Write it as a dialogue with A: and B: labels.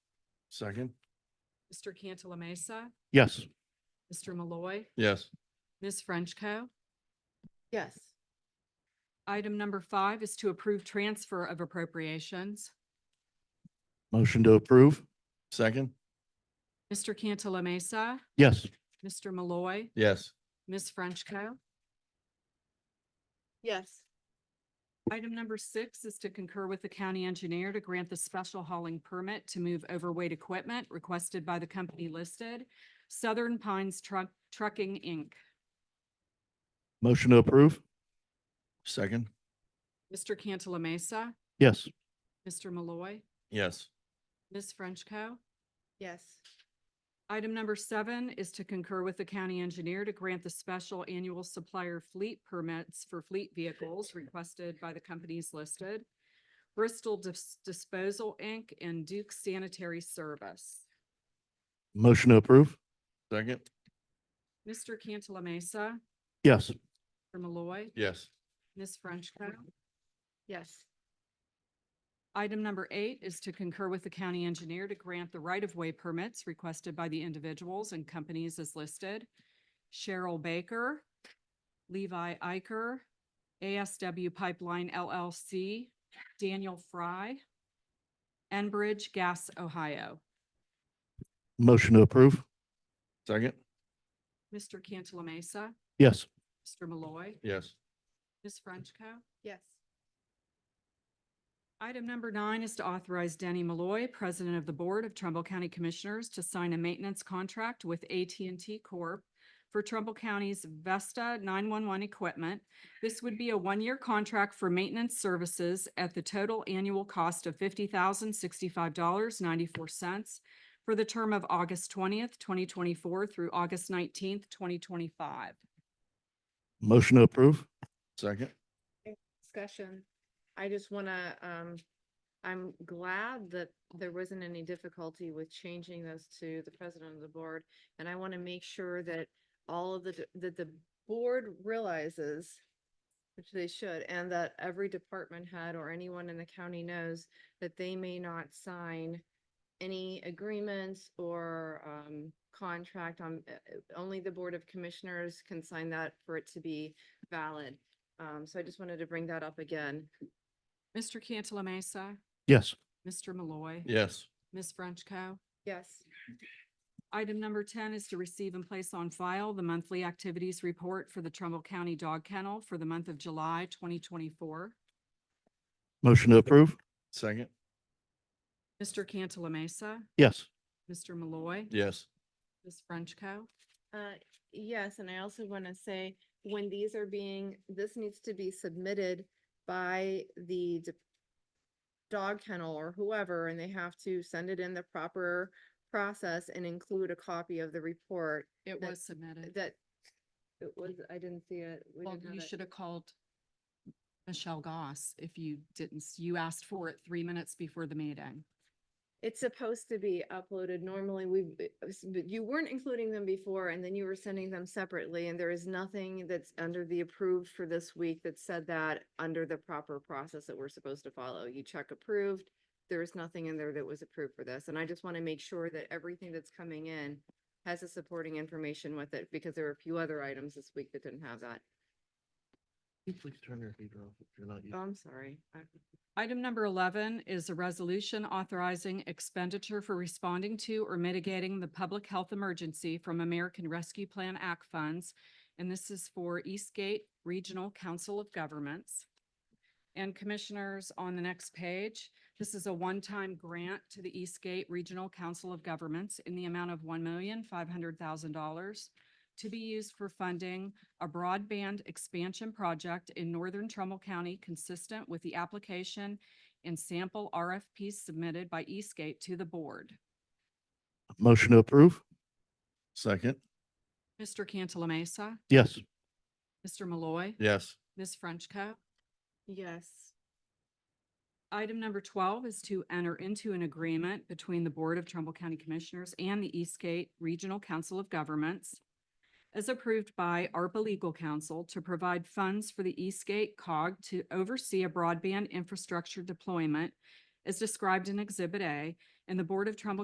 A: Second.
B: Mr. Cantala Mesa,
A: Yes.
B: Mr. Malloy,
A: Yes.
B: Ms. Frenchco.
C: yes,
B: Item number five is to approve transfer of appropriations.
A: Motion to approve. Second.
B: Mr. Cantala Mesa,
A: Yes.
B: Mr. Malloy,
A: Yes.
B: Ms. Frenchco.
C: yes,
B: Item number six is to concur with the county engineer to grant the special hauling permit to move overweight equipment requested by the company listed, Southern Pines Truck Trucking, Inc.
A: Motion to approve. Second.
B: Mr. Cantala Mesa,
A: Yes.
B: Mr. Malloy,
A: Yes.
B: Ms. Frenchco.
C: yes,
B: Item number seven is to concur with the county engineer to grant the special annual supplier fleet permits for fleet vehicles requested by the companies listed, Bristol Dis- Disposal, Inc. and Duke Sanitary Service.
A: Motion to approve. Second.
B: Mr. Cantala Mesa,
A: Yes.
B: Mr. Malloy,
A: Yes.
B: Ms. Frenchco.
C: yes,
B: Item number eight is to concur with the county engineer to grant the right-of-way permits requested by the individuals and companies as listed. Cheryl Baker, Levi Iker, ASW Pipeline LLC, Daniel Fry, Enbridge Gas, Ohio.
A: Motion to approve. Second.
B: Mr. Cantala Mesa,
A: Yes.
B: Mr. Malloy,
A: Yes.
B: Ms. Frenchco.
C: yes,
B: Item number nine is to authorize Denny Malloy, President of the Board of Trumbull County Commissioners, to sign a maintenance contract with at and T Corp. for Trumbull County's Vesta nine-one-one equipment. This would be a one-year contract for maintenance services at the total annual cost of fifty thousand sixty-five dollars ninety-four cents for the term of August twentieth, twenty twenty-four through August nineteenth, twenty twenty-five.
A: Motion to approve. Second.
C: discussion. I just wanna, um, I'm glad that there wasn't any difficulty with changing those to the president of the board. And I wanna make sure that all of the, d- that the board realizes, which they should, and that every department head or anyone in the county knows that they may not sign any agreements or, um, contract on, uh, uh, only the Board of Commissioners can sign that for it to be valid. Um, so I just wanted to bring that up again.
B: Mr. Cantala Mesa,
A: Yes.
B: Mr. Malloy.
A: Yes.
B: Ms. Frenchco.
C: Yes,
B: Item number ten is to receive and place on file the monthly activities report for the Trumbull County Dog Kennel for the month of July twenty twenty-four.
A: Motion to approve. Second.
B: Mr. Cantala Mesa,
A: Yes.
B: Mr. Malloy,
A: Yes.
B: Ms. Frenchco.
C: uh, yes, and I also want to say, when these are being, this needs to be submitted by the de- dog kennel or whoever, and they have to send it in the proper process and include a copy of the report
B: It
C: That-
B: was submitted.
C: that it was, I didn't see it. we
B: Well,
C: didn't have
B: you
C: it.
B: should have called Michelle Goss if you didn't, s- you asked for it three minutes before the meeting.
C: It's supposed to be uploaded normally. We, but you weren't including them before and then you were sending them separately and there is nothing that's under the approved for this week that said that under the proper process that we're supposed to follow. You check approved. There is nothing in there that was approved for this. And I just want to make sure that everything that's coming in has the supporting information with it because there were a few other items this week that didn't have that.
A: Please turn your heater off if you're not
C: Oh, I'm sorry. I-
B: Item number eleven is a resolution authorizing expenditure for responding to or mitigating the public health emergency from American Rescue Plan Act funds. And this is for Eastgate Regional Council of Governments. And Commissioners, on the next page, this is a one-time grant to the Eastgate Regional Council of Governments in the amount of one million five hundred thousand dollars to be used for funding a broadband expansion project in northern Trumbull County consistent with the application and sample RFPs submitted by Eastgate to the board.
A: Motion to approve. Second.
B: Mr. Cantala Mesa,
A: Yes.
B: Mr. Malloy,
A: Yes.
B: Ms. Frenchco.
C: Yes,
B: Item number twelve is to enter into an agreement between the Board of Trumbull County Commissioners and the Eastgate Regional Council of Governments as approved by ARPA Legal Counsel to provide funds for the Eastgate cog to oversee a broadband infrastructure deployment as described in Exhibit A, and the Board of Trumbull